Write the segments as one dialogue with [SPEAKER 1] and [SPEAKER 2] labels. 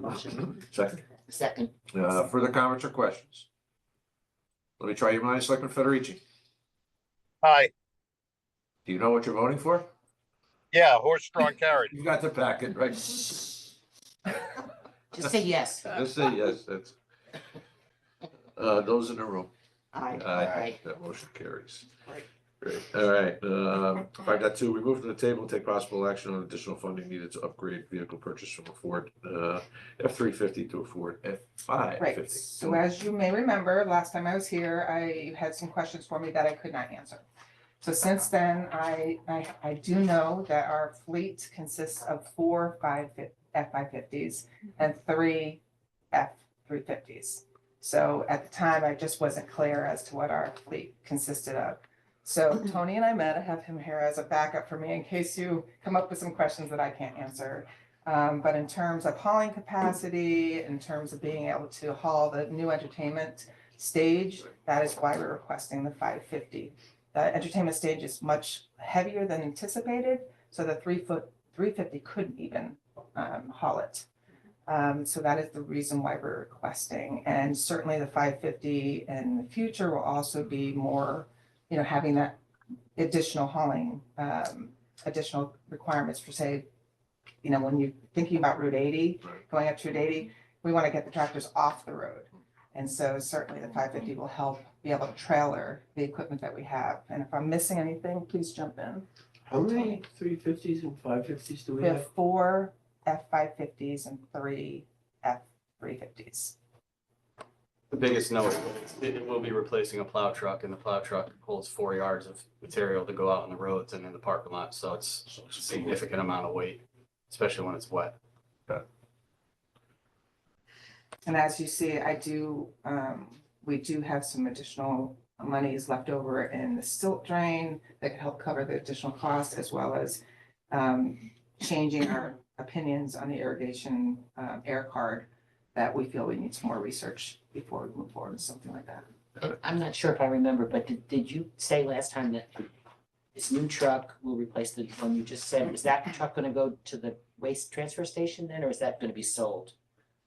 [SPEAKER 1] motion.
[SPEAKER 2] Second.
[SPEAKER 1] Second.
[SPEAKER 2] Uh, further comments or questions? Let me try your minds, Selectman Federici.
[SPEAKER 3] Hi,
[SPEAKER 2] Do you know what you're voting for?
[SPEAKER 3] yeah, horse drawn carriage.
[SPEAKER 2] You've got the packet, right?
[SPEAKER 1] Just say yes.
[SPEAKER 2] Just say yes, that's. Uh, those in the room.
[SPEAKER 1] Aye.
[SPEAKER 2] Aye, that motion carries. Great, all right, um, five dot two, remove from the table, take possible action on additional funding needed to upgrade vehicle purchase from a Ford, uh, F three fifty to a Ford F five fifty.
[SPEAKER 4] Right, so as you may remember, last time I was here, I you had some questions for me that I could not answer. So since then, I, I, I do know that our fleet consists of four five, F five fifties and three F three fifties. So at the time, I just wasn't clear as to what our fleet consisted of. So Tony and I met, I have him here as a backup for me in case you come up with some questions that I can't answer. Um, but in terms of hauling capacity, in terms of being able to haul the new entertainment stage, that is why we're requesting the five fifty. The entertainment stage is much heavier than anticipated, so the three foot, three fifty couldn't even, um, haul it. Um, so that is the reason why we're requesting, and certainly the five fifty in the future will also be more, you know, having that additional hauling, um, additional requirements for, say, you know, when you're thinking about Route eighty,
[SPEAKER 2] Right.
[SPEAKER 4] going up to Route eighty, we want to get the tractors off the road. And so certainly the five fifty will help be able to trailer the equipment that we have. And if I'm missing anything, please jump in.
[SPEAKER 5] How many three fifties and five fifties do we
[SPEAKER 4] We
[SPEAKER 5] have?
[SPEAKER 4] have four F five fifties and three F three fifties.
[SPEAKER 6] The biggest note, it it will be replacing a plow truck and the plow truck holds four yards of material to go out on the roads and in the parking lot, so it's a significant amount of weight, especially when it's wet.
[SPEAKER 4] And as you see, I do, um, we do have some additional monies left over in the silt drain that could help cover the additional costs as well as um, changing our opinions on the irrigation, um, air card that we feel we need some more research before we move forward with something like that.
[SPEAKER 1] And I'm not sure if I remember, but did, did you say last time that this new truck will replace the one you just said? Is that truck gonna go to the waste transfer station then, or is that gonna be sold?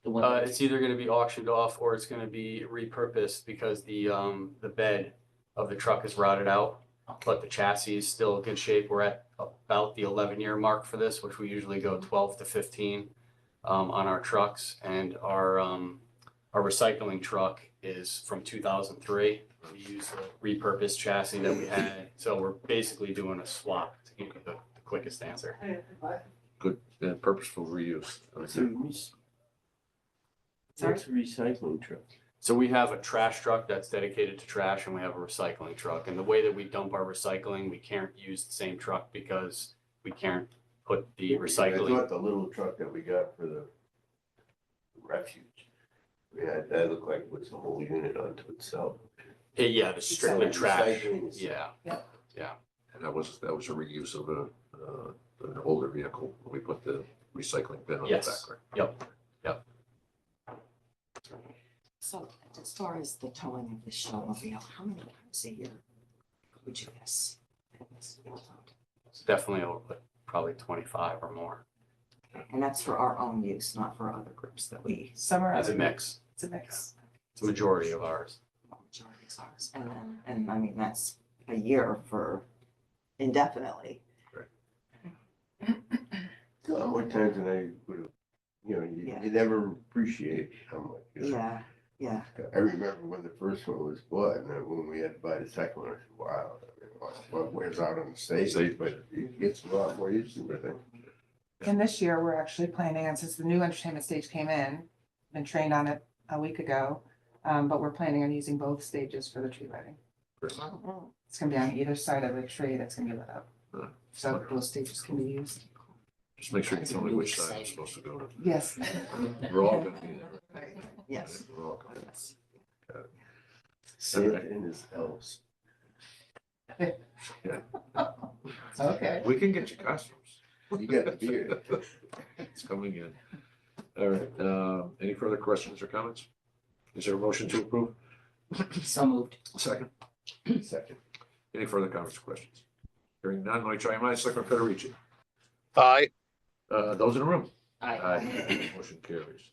[SPEAKER 1] The one,
[SPEAKER 6] Uh,
[SPEAKER 1] that-
[SPEAKER 6] it's either gonna be auctioned off or it's gonna be repurposed because the, um, the bed of the truck is rotted out. But the chassis is still in good shape. We're at about the eleven year mark for this, which we usually go twelve to fifteen um, on our trucks and our, um, our recycling truck is from two thousand three. We use the repurposed chassis that we had, so we're basically doing a swap to give you the the quickest answer.
[SPEAKER 2] Good, uh, purposeful reuse.
[SPEAKER 5] What's a rec-
[SPEAKER 4] Sorry?
[SPEAKER 5] what's a recycling truck?
[SPEAKER 6] So we have a trash truck that's dedicated to trash and we have a recycling truck. And the way that we dump our recycling, we can't use the same truck because we can't put the
[SPEAKER 7] I
[SPEAKER 6] recycling.
[SPEAKER 7] thought the little truck that we got for the refuge, we had, that looked like it was a whole unit unto itself.
[SPEAKER 6] Eh, Yeah, the strictly trash.
[SPEAKER 7] Recycling is-
[SPEAKER 6] Yeah,
[SPEAKER 2] And that was, that was a reuse of a, uh, an older vehicle, we put the recycling bin on the back,
[SPEAKER 6] Yes.
[SPEAKER 2] right?
[SPEAKER 6] Yep. Yep.
[SPEAKER 1] so as far as the towing of the snowmobile, how many times a year would you guess?
[SPEAKER 6] it's definitely over, like, probably twenty-five or more
[SPEAKER 1] And that's for our own use, not for other groups that we,
[SPEAKER 4] Summer,
[SPEAKER 6] as a
[SPEAKER 4] it's
[SPEAKER 6] mix.
[SPEAKER 4] a mix.
[SPEAKER 6] It's a majority of ours.
[SPEAKER 1] majority is ours. And then, and I mean, that's a year for indefinitely.
[SPEAKER 7] How much times did I would have, you know, you,
[SPEAKER 1] Yeah.
[SPEAKER 7] you never appreciate how much. you know.
[SPEAKER 1] Yeah, yeah.
[SPEAKER 7] I remember when the first one was bought, and then when we had to buy the second one, I said, wow, I mean, well, well, wears out on the stage, but it gets a lot more use than I think.
[SPEAKER 4] And this year, we're actually planning, on since the new entertainment stage came in, been trained on it a week ago, um, but we're planning on using both stages for the tree lighting. It's gonna be on either side of the tree that's gonna be lit up.
[SPEAKER 2] Hmm.
[SPEAKER 4] So those stages can be used.
[SPEAKER 2] Just make sure you tell me which side I'm supposed to go to.
[SPEAKER 4] Yes.
[SPEAKER 2] We're all gonna be there. right?
[SPEAKER 1] Yes.
[SPEAKER 2] We're all gonna.
[SPEAKER 1] Yes.
[SPEAKER 7] Santa and his elves.
[SPEAKER 4] Okay.
[SPEAKER 2] We can get you costumes.
[SPEAKER 7] You got the beard.
[SPEAKER 2] It's coming in. All right, um, any further questions or comments? Is there a motion to approve?
[SPEAKER 1] So moved.
[SPEAKER 2] Second,
[SPEAKER 7] Second.
[SPEAKER 2] any further comments or questions? Hearing none, let me try your minds, Selectman Federici.
[SPEAKER 3] Hi,
[SPEAKER 2] Uh, those in the room?
[SPEAKER 1] Aye.
[SPEAKER 2] Aye. Motion carries.